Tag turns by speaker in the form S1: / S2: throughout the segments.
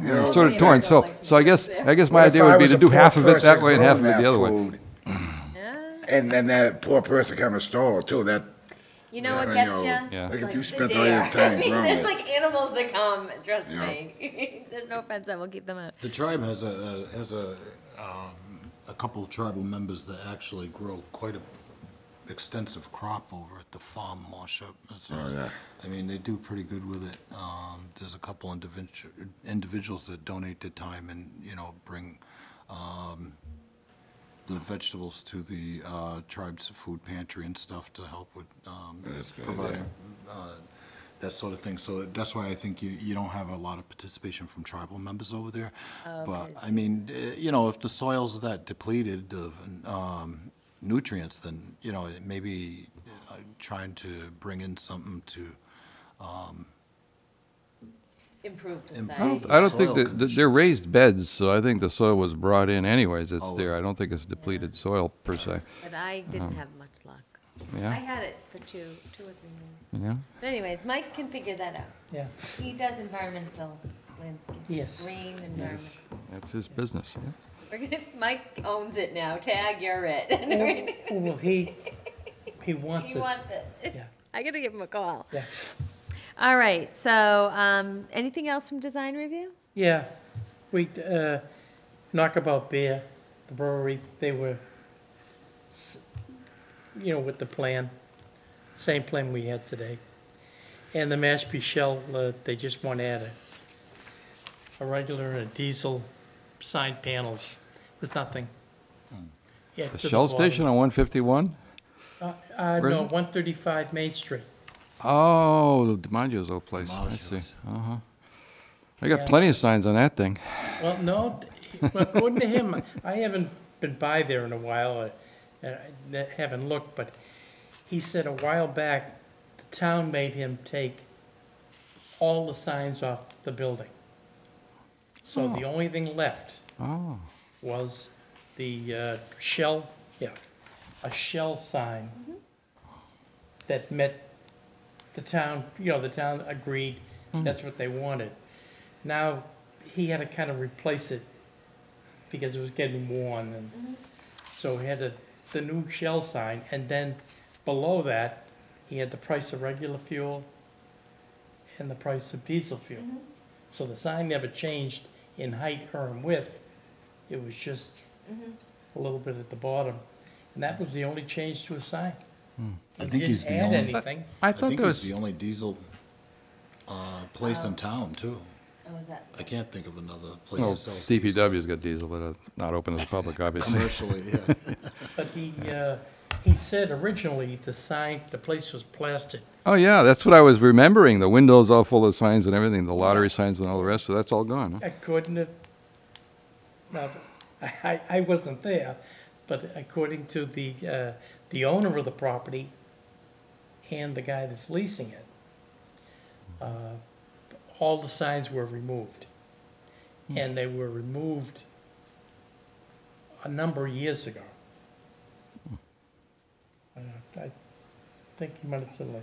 S1: you know, sort of torn, so, so I guess, I guess my
S2: What if
S1: idea
S2: I
S1: would be
S2: was
S1: to
S2: a
S1: do
S2: poor
S1: half of it that
S2: person
S1: way and half of it
S2: growing
S1: the other
S2: that
S1: way.
S2: food, And then that poor person come and stole it too, that.
S3: You know what
S2: that,
S3: gets you?
S2: know,
S1: Yeah.
S2: Like if
S3: Like
S2: you
S3: the
S2: spent all your
S3: dare.
S2: time growing
S3: There's
S2: it.
S3: like animals that come, trust
S2: Yeah.
S3: me. There's no offense, I will keep them out.
S4: The tribe has a, a- has a, um, a couple of tribal members that actually grow quite a extensive crop over at the farm Marshall.
S2: Oh, yeah.
S4: I mean, they do pretty good with it. Um, there's a couple individual, individuals that donate their time and, you know, bring, um, the vegetables to the, uh, tribe's food pantry and stuff to help with, um,
S2: That's a good
S4: providing,
S2: idea.
S4: uh, that sort of thing. So that's why I think you, you don't have a lot of participation from tribal members over there. But, I mean, eh, you know, if the soil's that depleted of um, nutrients, then, you know, it maybe uh, trying to bring in something to,
S3: Improve the
S4: Improve
S1: I don't,
S3: site.
S4: The
S1: I don't think
S4: soil
S1: that, that they're raised beds, so I think the soil was brought in anyways, it's there, I don't think it's depleted soil per se,
S3: But I didn't have much luck. I
S1: Uh-huh. yeah,
S3: had it for two, two or three months.
S1: yeah.
S3: But anyways, Mike can figure that out.
S5: Yeah,
S3: He does environmental landscape.
S5: Yes.
S3: Green environment.
S1: That's his business, yeah.
S3: We're gonna, Mike owns it now, tag, you're it.
S5: well, well, he, he wants
S3: He
S5: it,
S3: wants it.
S5: yeah,
S3: I gotta give him a call.
S5: yeah.
S3: All right, so, um, anything else from design review?
S5: Yeah, we, uh, Knockabout Beer, the brewery, they were, s- you know, with the plan, same plan we had today. And the Mashpee Shell, uh, they just want to add a, a regular and a diesel side panels, it was nothing. Yeah, to
S1: Hmm. The Shell
S5: bottom.
S1: station on one fifty-one?
S5: Uh, uh,
S1: Where is
S5: no,
S1: it?
S5: one thirty-five Main Street.
S1: Oh, DiMaggio's old place, I see, uh-huh. I got
S5: Yeah.
S1: plenty of signs on that thing.
S5: Well, no, according to him, I haven't been by there in a while, uh, uh, I haven't looked, but he said a while back, the town made him take all the signs off the building. So the only thing left
S1: Oh,
S5: was the uh, shell, yeah, a shell sign that met the town, you know, the town agreed, that's what they wanted. Now, he had to kind of replace it because it was getting worn and, so he had the, the new shell sign and then below that, he had the price of regular fuel and the price of diesel fuel. So the sign never changed in height or in width, it was just a little bit at the bottom. And that was the only change to a sign.
S4: I think he's the
S5: Didn't add
S4: only, I
S5: anything.
S1: I thought
S4: think
S1: there
S4: he's
S1: was,
S4: the only diesel uh, place in town, too.
S3: Oh, is that?
S4: I can't think of another place
S1: no,
S4: that sells diesel.
S1: DPW's got diesel, but uh, not open to the public, obviously.
S4: Commercially, yeah.
S5: But he, uh, he said originally the sign, the place was plastered.
S1: Oh, yeah, that's what I was remembering, the windows all full of signs and everything, the lottery signs and all the rest, so that's all gone, huh?
S5: According to, now, I, I- I wasn't there, but according to the, uh, the owner of the property and the guy that's leasing it, uh, all the signs were removed. And they were removed a number of years ago. I don't know, I think you might have said like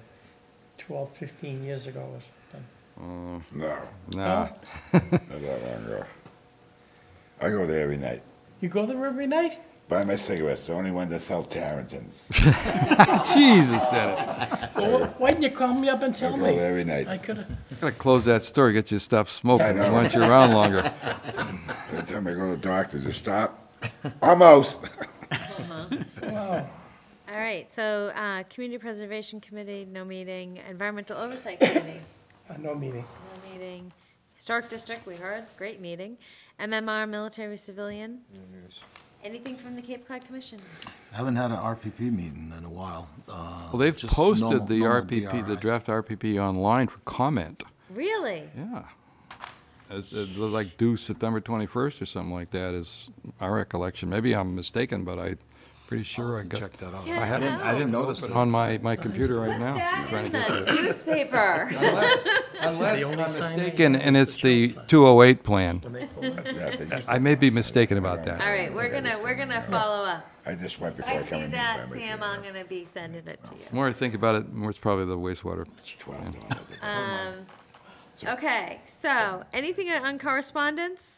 S5: 12, 15 years ago or something.
S2: No,
S1: Nah,
S2: not that long ago. I go there every night,
S5: You go there every night?
S2: buy my cigarettes, the only ones that sell Tarentins.
S1: Jesus, Dennis.
S5: Well, why didn't you call me up and
S2: I
S5: tell
S2: go
S5: me?
S2: there every
S5: I
S2: night,
S5: could have,
S1: Gotta close that store, get you to stop smoking,
S2: know.
S1: we want you around longer.
S2: by the time I go to the doctor, just stop, almost.
S5: wow.
S3: All right, so, uh, Community Preservation Committee, no meeting, Environmental Oversight Committee,
S5: Uh, No meeting.
S3: no meeting, Historic District, we heard, great meeting, MMR, Military Civilian. Anything from the Cape Cod Commission?
S4: Haven't had an RPP meeting in a while. uh,
S1: Well, they've posted the RPP, the draft RPP online for comment,
S3: Really?
S1: yeah. It's, uh, like due September twenty-first or something like that is my recollection, maybe I'm mistaken, but I, pretty sure I got.
S4: Check that out.
S3: Yeah, I hadn't- I
S4: didn't
S1: It's On my, my computer right
S2: Oh,
S1: now.
S3: Back
S1: trying
S3: in
S1: to get to it.
S3: the newspaper.
S1: Unless, unless
S5: only
S1: I'm
S5: sign they
S1: mistaken,
S5: have
S1: and
S5: is
S1: it's
S5: the
S1: the
S5: shop sign.
S1: 208 plan.
S5: when they pull up.
S2: Yeah, they just-
S1: I may be mistaken about
S3: All
S1: that.
S3: right, we're gonna, we're gonna follow up.
S2: I just went before
S3: I
S2: I come
S3: see
S2: in. Oh,
S3: that,
S2: buy my
S3: Sam,
S2: cigarettes.
S3: I'm gonna be sending it to you.
S1: The more I think about it, the more it's probably the wastewater.
S2: It's $12.
S3: Okay, so, anything on correspondence?